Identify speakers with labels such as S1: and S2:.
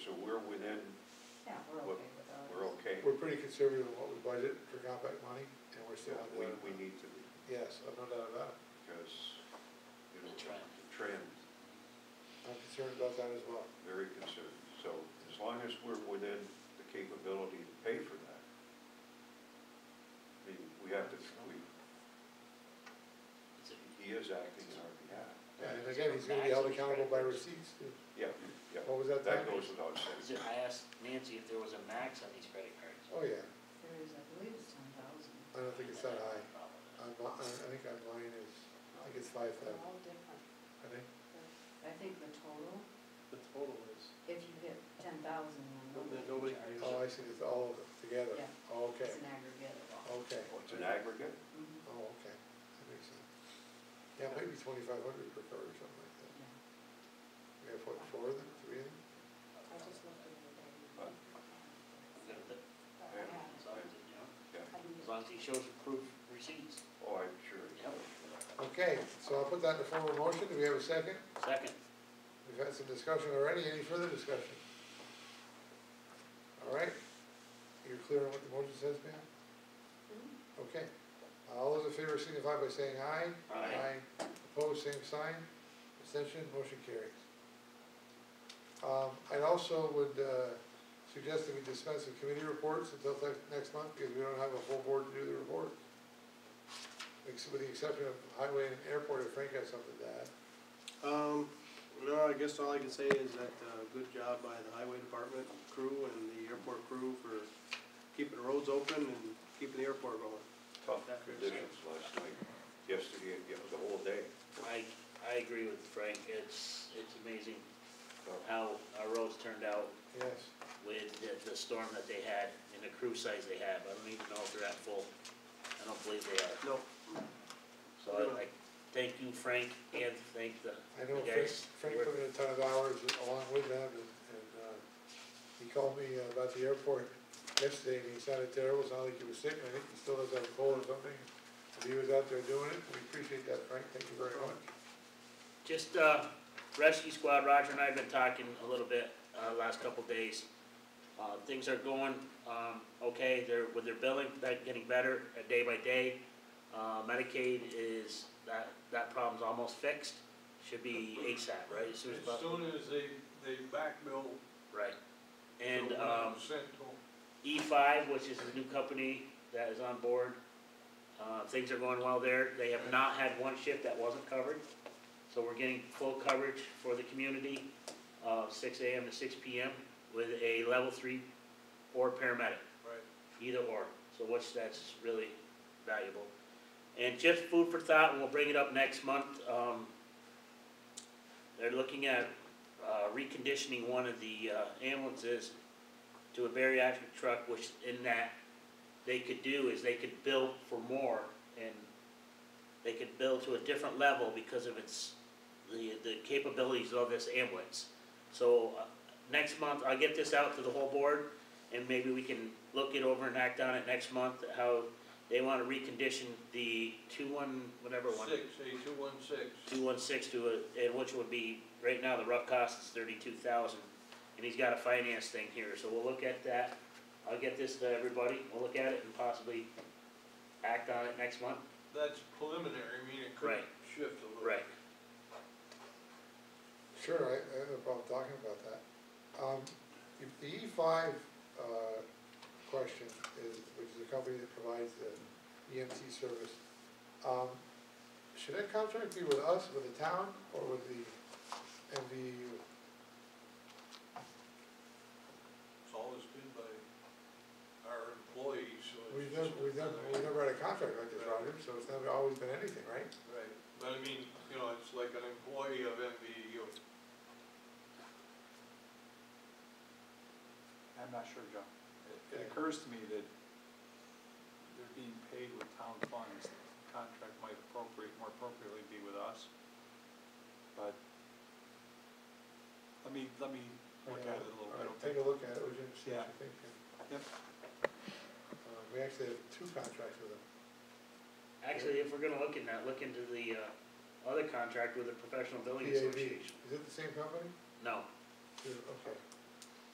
S1: So we're within,
S2: Yeah, we're
S1: What-
S2: okay with ours.
S1: we're okay.
S3: We're pretty conservative in what we budget for compact money, and we're still
S1: Yeah,
S3: under
S1: We,
S3: that.
S1: we need to be,
S3: Yes, I've no doubt about it.
S1: because, you know,
S4: The trend.
S1: the trend,
S3: I'm concerned about that as well.
S1: very concerned. So as long as we're within the capability to pay for that, I mean, we have to, we,
S4: It's a-
S1: he is acting on our behalf.
S3: And again, he's gonna be held accountable by receipts.
S1: Yeah, yeah,
S3: What was that?
S1: that
S3: Tom?
S1: goes without
S4: is
S1: saying.
S4: it- I asked Nancy if there was a max on these credit cards.
S3: Oh, yeah.
S2: There is, I believe it's ten thousand.
S3: I
S1: uh,
S3: don't think it's that high. I'm, I I think I'm mine is, I think it's five
S2: They're
S3: thousand,
S2: all different.
S3: I think.
S2: I think the total,
S5: The total is,
S2: if you hit ten thousand, then
S5: Then
S2: nobody
S5: nobody
S2: can
S5: can
S2: charge.
S5: use
S3: Oh, I see, it's all of them together.
S2: Yeah.
S3: Okay,
S2: It's an aggregate of all.
S3: okay.
S1: Well, It's an aggregate,
S2: Mhm.
S3: Oh, okay, that makes sense. Yeah, maybe twenty-five hundred per car or something like that.
S2: Yeah.
S3: We have what, four of them, three of them?
S6: I just looked at the day.
S1: Uh,
S4: Good with it, As long as it, you know,
S1: yeah.
S4: as long as he shows proof receipts,
S1: Oh, I'm sure.
S4: yep.
S3: Okay, so I'll put that in the form of motion. Do we have a second?
S4: Second,
S3: We've had some discussion already, any further discussion? All right, you're clear on what the motion says, ma'am?
S6: Hmm?
S3: Okay, all those in favor signify by saying aye.
S4: Aye.
S3: Opposed, same sign, abstention, motion carries. Um, I also would, uh, suggest that we dispense with committee reports until next, next month, because we don't have a full board to do the report. Ex- With the exception of highway and airport, if Frank has something to add.
S5: Um, no, I guess all I can say is that, uh, good job by the highway department crew and the airport crew for keeping the roads open and keeping the airport going.
S1: Tough conditions last night, yesterday, it was the whole day.
S4: I, I agree with Frank, it's, it's amazing
S1: tough.
S4: how our roads turned out
S3: Yes,
S4: with the, the storm that they had and the crew size they have, I don't even know if they're at full. I don't believe they are,
S5: No,
S4: so I, I thank you, Frank, and thank the,
S3: I
S4: the
S3: know Frank,
S4: guys.
S3: Frank put in a ton of hours along with them, and, and, uh, he called me uh, about the airport yesterday, and he sounded terrible, sounded like he was sick, and I think he still has a cold or something. But He was out there doing it, we appreciate that, Frank, thank you very much.
S4: Just, uh, rescue squad, Roger and I have been talking a little bit, uh, last couple days. Uh, things are going, um, okay, they're, with their billing, that getting better, uh, day by day. Uh, Medicaid is, that, that problem's almost fixed, should be ASAP, right, as soon as
S7: As
S4: possible,
S7: soon as they, they backbill.
S4: right. And, um,
S7: Central.
S4: E five, which is the new company that is on board, uh, things are going well there, they have not had one shift that wasn't covered. So we're getting full coverage for the community, uh, six AM to six PM with a level three or paramedic,
S5: right.
S4: either or, so which that's really valuable. And just food for thought, and we'll bring it up next month, um, they're looking at, uh, reconditioning one of the uh, ambulances to a bariatric truck, which in that, they could do is they could bill for more and they could bill to a different level because of its, the, the capabilities of this ambulance. So, uh, next month, I'll get this out to the whole board and maybe we can look it over and act on it next month, how they wanna recondition the two one, whatever one
S7: Six, eight, two, one, six.
S4: two one six to a, and which would be, right now, the rough cost is thirty-two thousand. And he's got a finance thing here, so we'll look at that. I'll get this to everybody, we'll look at it and possibly act on it next month.
S7: That's preliminary, I mean, it could
S4: Right.
S7: shift a little.
S4: Right.
S3: Sure, I, I have no problem talking about that. Um, if the E five, uh, question is, which is a company that provides the EMT service, um, should that contract be with us, with the town, or with the E MVU?
S7: It's always been by our employees, so it's.
S3: We've never, we've never, we've never had a contract like this, Roger, so it's never always been anything, right?
S7: Right, but I mean, you know, it's like an employee of E MVU.
S8: I'm not sure, John. It- It occurs to me that they're being paid with town funds. The Contract might appropriate, more appropriately be with us. But let me, let me look at it a little bit,
S3: All right,
S8: okay?
S3: Take a look at it, would you, see
S8: Yeah.
S3: what you think? and-
S8: Yep.
S3: Uh, we actually have two contracts with them.
S4: Actually, if we're gonna look in that, look into the, uh, other contract with the Professional Building
S3: PAB.
S4: Association.
S3: Is it the same company?
S4: No,
S3: Is it- Okay,